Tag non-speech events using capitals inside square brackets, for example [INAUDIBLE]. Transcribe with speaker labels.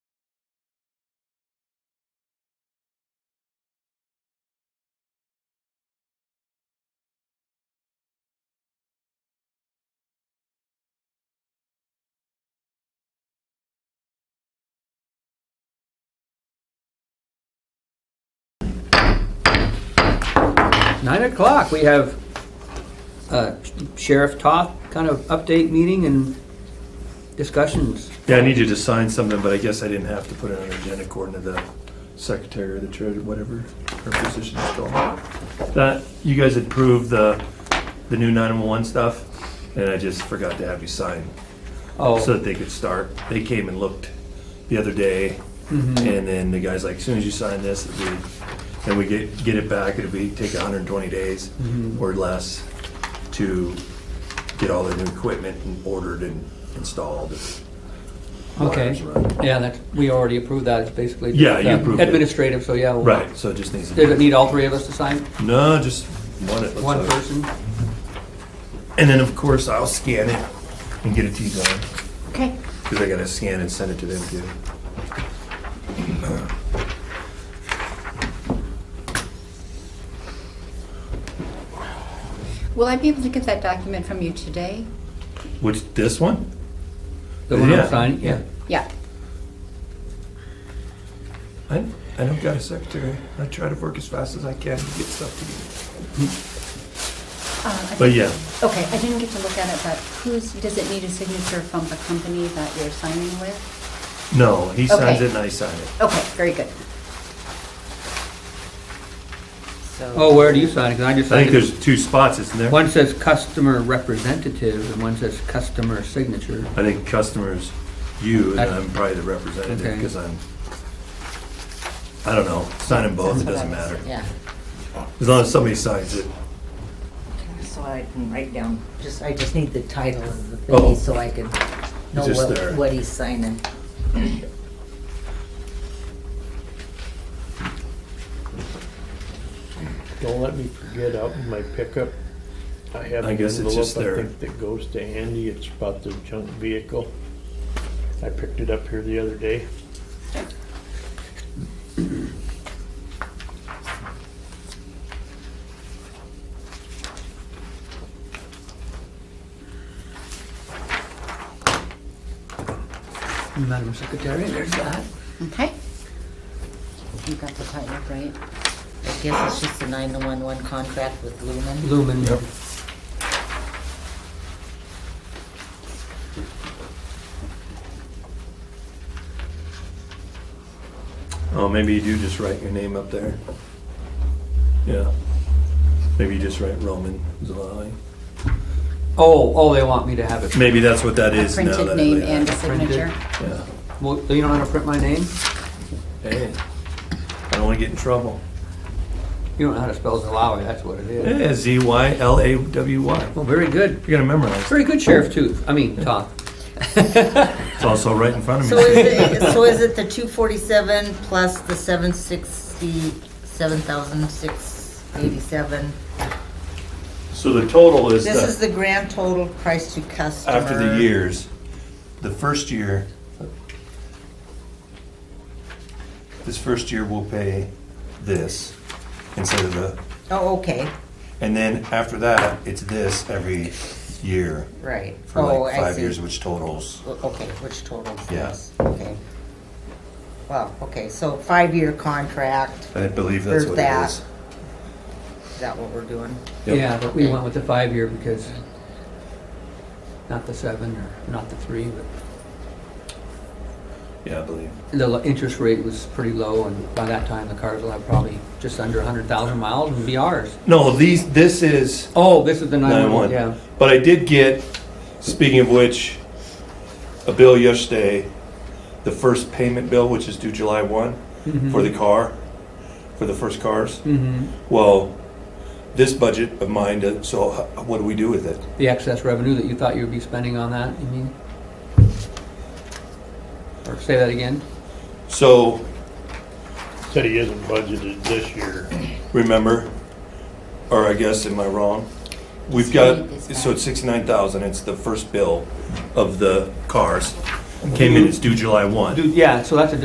Speaker 1: Nine o'clock, we have uh, Sheriff Toth kind of update meeting and discussions.
Speaker 2: Yeah, I need you to sign something, but I guess I didn't have to put it on the agenda according to the secretary or the treasurer, whatever her position is called. That, you guys had approved the, the new 911 stuff, and I just forgot to have you sign so
Speaker 1: Oh,
Speaker 2: that they could start. They came and looked the other day, and then the guy's like, as soon as you sign this, it'll be, and we get, get it back, it'll be, take 120 days or less to get all the new equipment and ordered and installed.
Speaker 1: okay.
Speaker 2: Wires run.
Speaker 1: Yeah, that, we already approved that, it's basically.
Speaker 2: Yeah, you
Speaker 1: uh,
Speaker 2: approved it.
Speaker 1: Administrative, so yeah. we'll-
Speaker 2: Right, so it just needs to
Speaker 1: Does it need all three of us to sign?
Speaker 2: No, just one. It looks
Speaker 1: One
Speaker 2: like.
Speaker 1: person?
Speaker 2: And then of course I'll scan it and get it to you guys
Speaker 3: Okay.
Speaker 2: because I gotta scan and send it to them too.
Speaker 3: Will I be able to get that document from you today?
Speaker 2: Which this one?
Speaker 1: The one I'm
Speaker 2: Yeah.
Speaker 1: signing, yeah.
Speaker 3: Yeah.
Speaker 2: I I don't got a secretary. I try to work as fast as I can to get stuff to
Speaker 3: Uh, I
Speaker 2: you. But
Speaker 3: think-
Speaker 2: yeah,
Speaker 3: Okay, I didn't get to look at it, but who's, does it need a signature from the company that you're signing with?
Speaker 2: no, he signs
Speaker 3: Okay.
Speaker 2: it and I sign it.
Speaker 3: Okay, very good. So.
Speaker 1: Oh, where do you sign? Because I just
Speaker 2: I think
Speaker 1: signed it.
Speaker 2: there's two spots, isn't there?
Speaker 1: One says customer representative and one says customer signature.
Speaker 2: I think customers, you, and
Speaker 1: I-
Speaker 2: I'm probably the representative
Speaker 1: Okay.
Speaker 2: because I'm. I don't know. Sign them both. It doesn't matter.
Speaker 4: Yeah,
Speaker 2: As long as somebody signs it.
Speaker 4: so I can write down, just, I just need the title of the
Speaker 2: Oh.
Speaker 4: thing, so I can know
Speaker 2: just there.
Speaker 4: what, what he's signing.
Speaker 5: Don't let me forget out in my pickup, I have
Speaker 2: I
Speaker 5: an
Speaker 2: guess it's
Speaker 5: envelope,
Speaker 2: just there.
Speaker 5: I think, that goes to Andy, it's about the junk vehicle. I picked it up here the other day.
Speaker 1: Madam Secretary, there's that.
Speaker 3: Okay. You got the title, right?
Speaker 4: I guess it's just the nine-one-one contract with Lumen.
Speaker 1: Lumen.
Speaker 2: Yep. Oh, maybe you do just write your name up there. Yeah. Maybe you just write Roman Zelali.
Speaker 1: Oh, oh, they want me to have it.
Speaker 2: Maybe that's what that is now. that I
Speaker 3: Printed name
Speaker 2: lay
Speaker 3: and a
Speaker 2: that.
Speaker 3: signature.
Speaker 2: Yeah.
Speaker 1: Well, you don't know how to print my name?
Speaker 2: Hey, I don't want to get in trouble.
Speaker 1: You don't know how to spell Zalawi, that's what it is.
Speaker 2: Yeah, Z Y L A W Y.
Speaker 1: Well, very good.
Speaker 2: You're gonna memorize.
Speaker 1: Very good, Sheriff Tooth. I mean, Toth.
Speaker 2: It's also right in front of
Speaker 4: So
Speaker 2: me. [LAUGHS]
Speaker 4: is it, so is it the two forty-seven plus the seven sixty, seven thousand six eighty-seven?
Speaker 6: So the total is
Speaker 4: This is
Speaker 6: the,
Speaker 4: the grand total price to customer.
Speaker 6: after the years, the first year, this first year we'll pay this instead of the,
Speaker 4: Oh, okay,
Speaker 6: and then after that, it's this every year
Speaker 4: right.
Speaker 6: for
Speaker 4: Oh,
Speaker 6: like
Speaker 4: I
Speaker 6: five
Speaker 4: see.
Speaker 6: years, which totals,
Speaker 4: Okay, which totals
Speaker 6: Yeah.
Speaker 4: this, okay. Wow, okay, so five-year contract,
Speaker 6: I believe that's
Speaker 4: There's
Speaker 6: what it
Speaker 4: that.
Speaker 6: is.
Speaker 4: is that what we're doing?
Speaker 6: Yep.
Speaker 1: Yeah, but we went with the five-year because not the seven or not the three, but
Speaker 6: Yeah, I believe.
Speaker 1: the lo- interest rate was pretty low and by that time the cars will have probably just under a hundred thousand miles and be ours.
Speaker 6: No, these, this is.
Speaker 1: Oh, this is the
Speaker 6: 911.
Speaker 1: nine-one, yeah.
Speaker 6: But I did get, speaking of which, a bill yesterday, the first payment bill, which is due July 1
Speaker 1: Mm-hmm.
Speaker 6: for the car, for the first cars.
Speaker 1: hmm
Speaker 6: Well, this budget of mine, uh, so h- what do we do with it?
Speaker 1: The excess revenue that you thought you would be spending on that, you mean? Or say that again?
Speaker 6: So
Speaker 5: Said he isn't budgeted this year.
Speaker 6: remember, or I guess am I wrong? We've got so it's 69,000. It's the first bill of the cars came in. It's due July 1.
Speaker 1: Dude, yeah, so that's a